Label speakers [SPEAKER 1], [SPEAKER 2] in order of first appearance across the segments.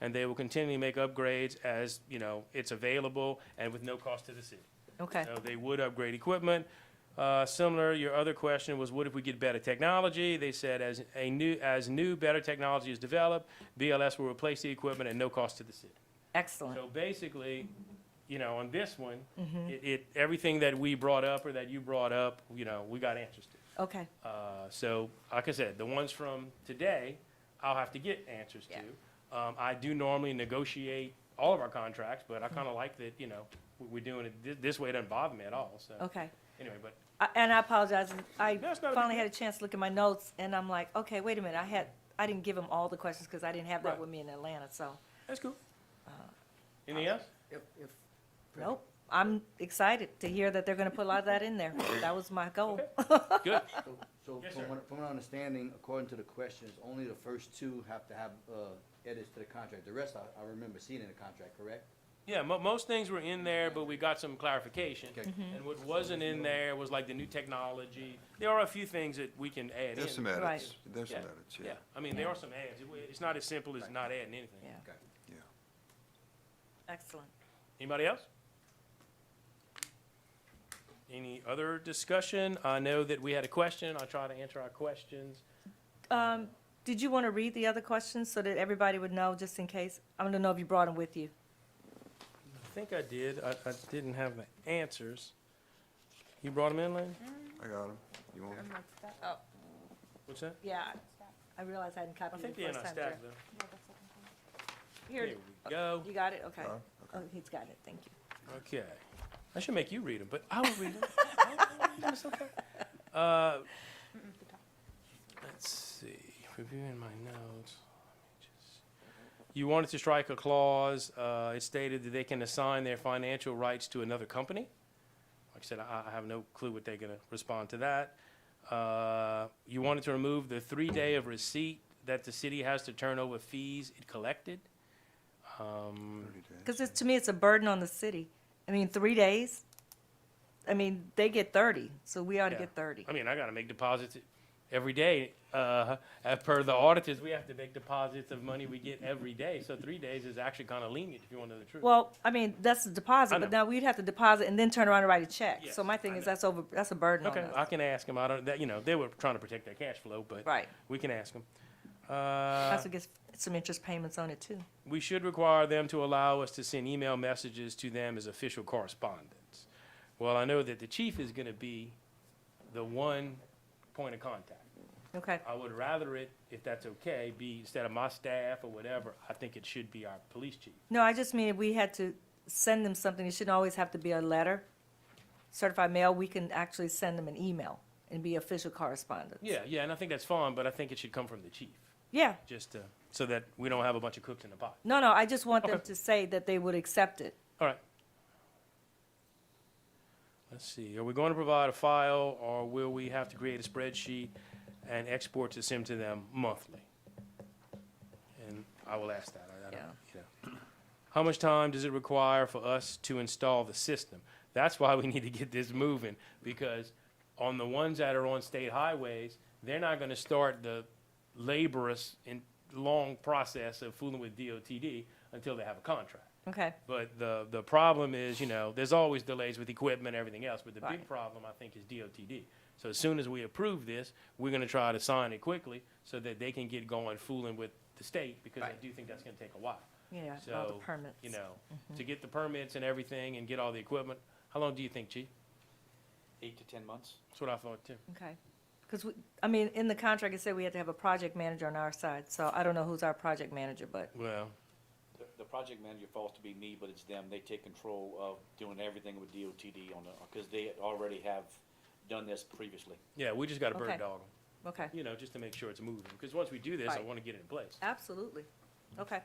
[SPEAKER 1] and they will continually make upgrades as, you know, it's available and with no cost to the city.
[SPEAKER 2] Okay,
[SPEAKER 1] So they would upgrade equipment. Uh, Similar, your other question was, what if we get better technology? They said, as a new, as new, better technology is developed, BLS will replace the equipment at no cost to the city.
[SPEAKER 2] excellent.
[SPEAKER 1] So basically, you know, on this one, it, it, everything that we brought up or that you brought up, you know, we got answers to.
[SPEAKER 2] Okay,
[SPEAKER 1] Uh, So, like I said, the ones from today, I'll have to get answers
[SPEAKER 2] Yeah.
[SPEAKER 1] to. Um, I do normally negotiate all of our contracts, but I
[SPEAKER 2] Mm-hmm.
[SPEAKER 1] kind of like that, you know, we- we're doing it, thi- this way doesn't bother me at all, so.
[SPEAKER 2] okay.
[SPEAKER 1] Anyway, but,
[SPEAKER 2] I- And I apologize, I
[SPEAKER 1] No, it's not a big
[SPEAKER 2] finally
[SPEAKER 1] deal.
[SPEAKER 2] had a chance to look at my notes, and I'm like, okay, wait a minute, I had, I didn't give him all the questions, because I didn't have that
[SPEAKER 1] Right.
[SPEAKER 2] with me in Atlanta, so,
[SPEAKER 1] that's cool.
[SPEAKER 2] Uh,
[SPEAKER 1] Anything else?
[SPEAKER 3] If, if.
[SPEAKER 2] nope. I'm excited to hear that they're gonna put a lot of that in there. That was my goal.
[SPEAKER 1] Good.
[SPEAKER 3] So- So
[SPEAKER 1] Yes, sir.
[SPEAKER 3] from what, from my understanding, according to the questions, only the first two have to have, uh, edits to the contract. The rest I, I remember seeing in the contract, correct?
[SPEAKER 1] Yeah, mo- most things were in there, but we got some clarification.
[SPEAKER 3] Okay.
[SPEAKER 2] Mm-hmm.
[SPEAKER 1] And what wasn't in there was like the new technology. There are a few things that we can add in.
[SPEAKER 4] There's some edits,
[SPEAKER 2] Right.
[SPEAKER 4] there's some
[SPEAKER 1] Yeah.
[SPEAKER 4] edits,
[SPEAKER 1] Yeah,
[SPEAKER 4] yeah.
[SPEAKER 1] I mean, there are some adds. It wa- It's not as simple as not adding anything.
[SPEAKER 2] Yeah,
[SPEAKER 3] Okay.
[SPEAKER 2] excellent.
[SPEAKER 1] Anybody else? Any other discussion? I know that we had a question. I'll try to answer our questions.
[SPEAKER 2] Um, did you want to read the other questions so that everybody would know, just in case? I don't know if you brought them with you.
[SPEAKER 1] I think I did. I, I didn't have the answers. You brought them in, Lynn?
[SPEAKER 4] I got them. You want 'em?
[SPEAKER 1] What's that?
[SPEAKER 2] Oh, Yeah, I realized I hadn't
[SPEAKER 1] I
[SPEAKER 2] copied
[SPEAKER 1] think
[SPEAKER 2] it
[SPEAKER 1] they're
[SPEAKER 2] the
[SPEAKER 1] in
[SPEAKER 2] first
[SPEAKER 1] our
[SPEAKER 2] time.
[SPEAKER 1] stack,
[SPEAKER 2] Jeff.
[SPEAKER 1] though.
[SPEAKER 2] Here,
[SPEAKER 1] Here we go.
[SPEAKER 2] you got it, okay.
[SPEAKER 4] Huh?
[SPEAKER 2] Oh, he's got it, thank you.
[SPEAKER 1] Okay. I should make you read them, but I will read them. I will read 'em, it's okay. Uh, Let's see, reviewing my notes. Let me just- You wanted to strike a clause, uh, it stated that they can assign their financial rights to another company. Like I said, I, I have no clue what they're gonna respond to that. Uh, You wanted to remove the three-day of receipt that the city has to turn over fees it collected. Um,
[SPEAKER 4] Thirty days.
[SPEAKER 2] Because to me, it's a burden on the city. I mean, three days, I mean, they get thirty, so we ought to
[SPEAKER 1] Yeah.
[SPEAKER 2] get thirty.
[SPEAKER 1] I mean, I gotta make deposits every day. Uh, as per the auditors, we have to make deposits of money we get every day. So three days is actually kinda lenient, if you wanna know the truth.
[SPEAKER 2] Well, I mean, that's the deposit,
[SPEAKER 1] I
[SPEAKER 2] but
[SPEAKER 1] know.
[SPEAKER 2] now we'd have to deposit and then turn around and write a check.
[SPEAKER 1] Yes,
[SPEAKER 2] So my
[SPEAKER 1] I
[SPEAKER 2] thing is,
[SPEAKER 1] know.
[SPEAKER 2] that's over, that's a burden on
[SPEAKER 1] Okay,
[SPEAKER 2] us.
[SPEAKER 1] I can ask them. I don't, that, you know, they were trying to protect their cash flow, but
[SPEAKER 2] Right.
[SPEAKER 1] we can ask them.
[SPEAKER 2] That's what gets some interest payments on it too.
[SPEAKER 1] we should require them to allow us to send email messages to them as official correspondence. Well, I know that the chief is gonna be the one point of contact.
[SPEAKER 2] Okay,
[SPEAKER 1] I would rather it, if that's okay, be instead of my staff or whatever, I think it should be our police chief.
[SPEAKER 2] no, I just mean if we had to send them something, it shouldn't always have to be a letter. Certified mail, we can actually send them an email and be official correspondence.
[SPEAKER 1] Yeah, yeah, and I think that's fine, but I think it should come from the chief,
[SPEAKER 2] Yeah,
[SPEAKER 1] just to, so that we don't have a bunch of cooks in the pot.
[SPEAKER 2] no, no, I just want them
[SPEAKER 1] Okay.
[SPEAKER 2] to say that they would accept it.
[SPEAKER 1] All right. Let's see, are we going to provide a file, or will we have to create a spreadsheet and export this into them monthly? And I will ask that, I, I don't,
[SPEAKER 2] Yeah.
[SPEAKER 1] you know. How much time does it require for us to install the system? That's why we need to get this moving, because on the ones that are on state highways, they're not gonna start the laborious and long process of fooling with DOTD until they have a contract.
[SPEAKER 2] Okay,
[SPEAKER 1] But the, the problem is, you know, there's always delays with equipment and everything else, but the big
[SPEAKER 2] Right.
[SPEAKER 1] problem, I think, is DOTD. So as soon as we approve this, we're gonna try to sign it quickly so that they can get going fooling with the state, because I
[SPEAKER 2] Right.
[SPEAKER 1] do think that's gonna take a while.
[SPEAKER 2] yeah, all the
[SPEAKER 1] So,
[SPEAKER 2] permits. Mm-hmm.
[SPEAKER 1] you know, to get the permits and everything and get all the equipment, how long do you think, Chief?
[SPEAKER 5] eight to ten months.
[SPEAKER 1] That's what I thought too.
[SPEAKER 2] Okay, because we, I mean, in the contract, it said we had to have a project manager on our side, so I don't know who's our project manager, but,
[SPEAKER 1] Well,
[SPEAKER 5] The, the project manager falls to be me, but it's them. They take control of doing everything with DOTD on the, because they already have done this previously.
[SPEAKER 1] yeah, we just gotta bird
[SPEAKER 2] Okay.
[SPEAKER 1] dog 'em,
[SPEAKER 2] okay,
[SPEAKER 1] you know, just to make sure it's moving, because once we do this, I
[SPEAKER 2] Right.
[SPEAKER 1] wanna get it in place.
[SPEAKER 2] absolutely, okay.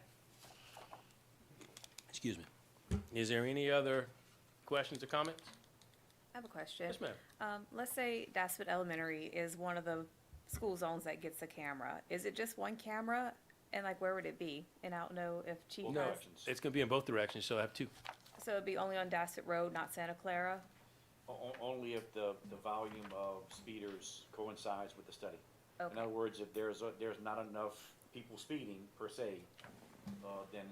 [SPEAKER 1] Excuse me. Is there any other questions or comments?
[SPEAKER 6] I have a question.
[SPEAKER 1] Yes, ma'am.
[SPEAKER 6] Um, let's say Dassett Elementary is one of the school zones that gets a camera. Is it just one camera? And like, where would it be? And I don't know if Chief
[SPEAKER 5] Both
[SPEAKER 1] No.
[SPEAKER 6] has,
[SPEAKER 5] directions.
[SPEAKER 1] It's gonna be in both directions, so I have two.
[SPEAKER 6] so it'd be only on Dassett Road, not Santa Clara?
[SPEAKER 5] O- o- Only if the, the volume of speeders coincides with the study. In
[SPEAKER 6] Okay.
[SPEAKER 5] other words, if there's, a- there's not enough people speeding per se, uh, then